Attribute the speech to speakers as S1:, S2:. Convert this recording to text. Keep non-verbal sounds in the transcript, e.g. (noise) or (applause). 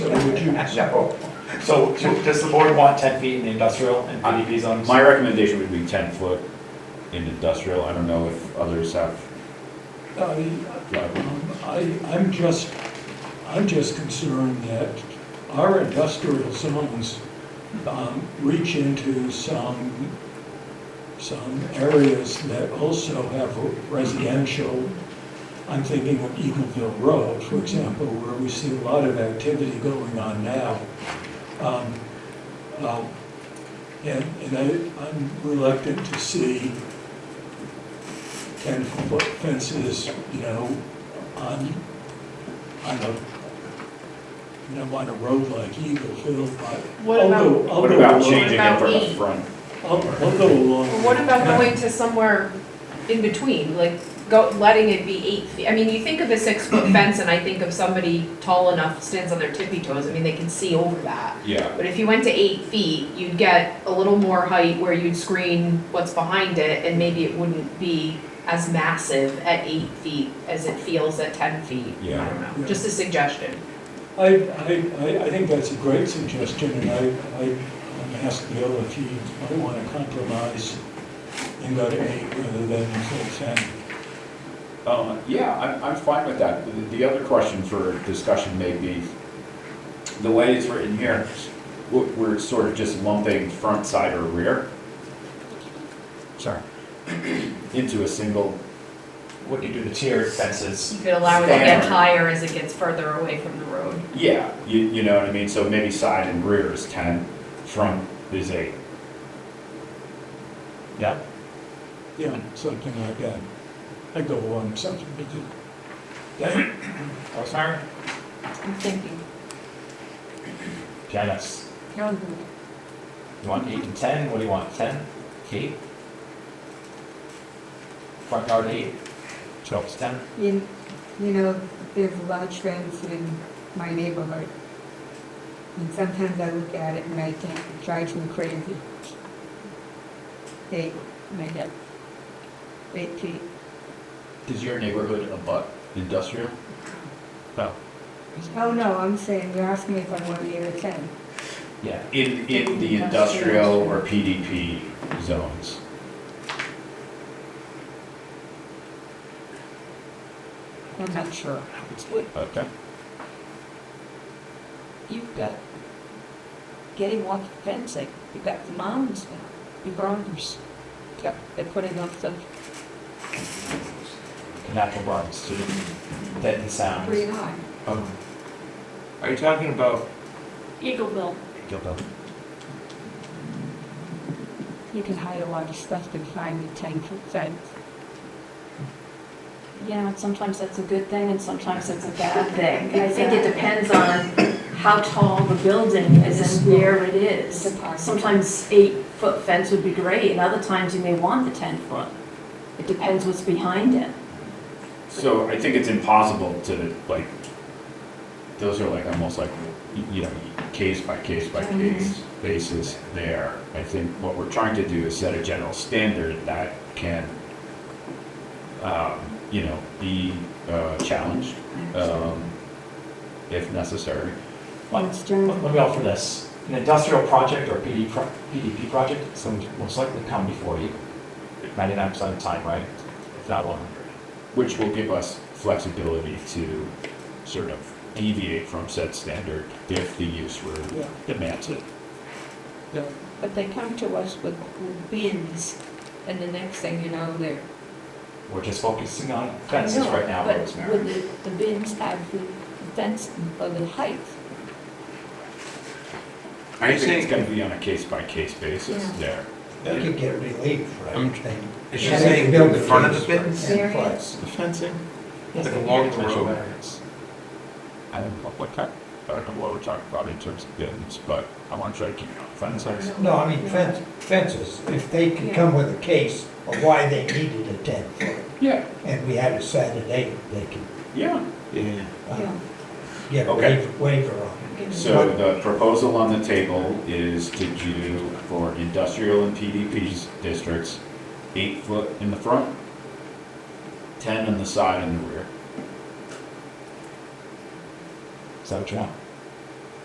S1: would you?
S2: No. So do- does the board want 10 feet in the industrial and PDP zones?
S3: My recommendation would be ten foot in industrial, I don't know if others have.
S1: I, I, I'm just, I'm just concerned that our industrial zones, um, reach into some, some areas that also have residential. I'm thinking of Eagleville Road, for example, where we see a lot of activity going on now. Um, uh, And, and I, I'm reluctant to see ten-foot fences, you know, on, on a, you know, on a road like Eagle Hill, but
S4: What
S1: I'll
S4: about-
S1: go, I'll
S3: What
S1: go
S3: about
S1: along-
S3: changing it for
S4: What
S3: the
S4: about E?
S3: front?
S1: I'll, I'll go along.
S4: Well, What about
S1: with-
S4: going to somewhere in between, like go, letting it be eight feet? I mean, you think of a six-foot fence and I think of somebody tall enough, stands on their tippy toes, I mean, they can see over that.
S3: Yeah,
S4: But if you went to eight feet, you'd get a little more height where you'd screen what's behind it and maybe it wouldn't be as massive at eight feet as it feels at ten feet. I don't know,
S1: Yeah.
S4: just a suggestion.
S1: I, I, I, I think that's a great suggestion, and I, I, I'm asking Bill if he might want to compromise and go to eight rather than until ten.
S3: Um, yeah, I'm, I'm fine with that. The- The other question for discussion may be, the way it's written here, we're, we're sort of just lumping front, side, or rear. Sorry. (clears throat) Into a single,
S2: Would you do the tiered fences?
S4: You could allow it to get
S3: Fair.
S4: higher as it gets further away from the road.
S3: yeah, you, you know what I mean? So maybe side and rear is ten, front is eight.
S2: Yeah.
S1: Yeah, something like that. I go along, something, but you- that,
S2: Rosemary?
S4: I'm thinking.
S2: Janice? You want eight and 10? What do you want, 10? Kate? Front yard eight? So it's 10?
S5: You, you know, there's a lot of trends in my neighborhood. And sometimes I look at it and I think it drives me crazy. They, my God. Eight feet.
S3: Does your neighborhood abut industrial?
S2: No.
S5: Oh, no, I'm saying, you're asking me if I want to give a ten.
S2: Yeah.
S3: In, in the industrial or PDP zones?
S5: I'm not sure.
S3: Okay.
S6: You've got getting off the fencing, you've got the mounds now, the burners. Yep, they're putting up the,
S2: Natural burns to deaden
S5: Pretty
S2: sounds.
S5: high.
S7: Um, Are you talking about,
S6: Eagleville,
S2: Gilbo.
S5: You can hide a lot of stuff behind the ten foot fence.
S8: you know, sometimes that's a good thing and sometimes it's a bad thing. I think it depends on how tall the building is and where it is. Sometimes eight-foot fence would be great, and other times you may want the ten-foot. It depends what's behind it.
S3: So I think it's impossible to, like, those are like almost like, y- you know, case by case by case basis there. I think what we're trying to do is set a general standard that can, um, you know, be, uh, challenged, um, if necessary.
S2: Let let me offer this. An industrial project or PD pro- PDP project is going to most likely come before you, 99% of the time, right? If not 100.
S3: which will give us flexibility to sort of deviate from said standard if the use were
S1: Yeah.
S3: demands it.
S1: yeah.
S6: but they come to us with bins, and the next thing you know, they're.
S2: We're just focusing on fences
S6: I know,
S2: right now,
S6: But
S2: Rosemary.
S6: would the, the bins have the fence of the height?
S3: I
S7: Are you
S3: think
S7: saying-
S3: it's gonna be on a case-by-case basis there.
S1: They could get relief,
S7: I'm- is you saying in front of the bins?
S1: Variance.
S3: The fencing?
S2: Yes,
S7: Like
S2: they
S7: along
S2: can
S7: the
S2: measure
S7: road.
S2: variance.
S3: I don't know what kind, I don't know what we're talking about in terms of bins, but I wanna try to keep it on fences.
S9: No, I mean fence, fences, if they could come with a case of why they needed a ten foot,
S3: Yeah,
S9: and we had a Saturday, they could
S3: yeah.
S7: yeah,
S9: uh,
S5: Yeah.
S9: get a
S3: Okay.
S9: waiver, waiver on it.
S3: So the proposal on the table is to do for industrial and PDP districts, eight foot in the front, ten on the side and the rear.
S2: Is that what you want?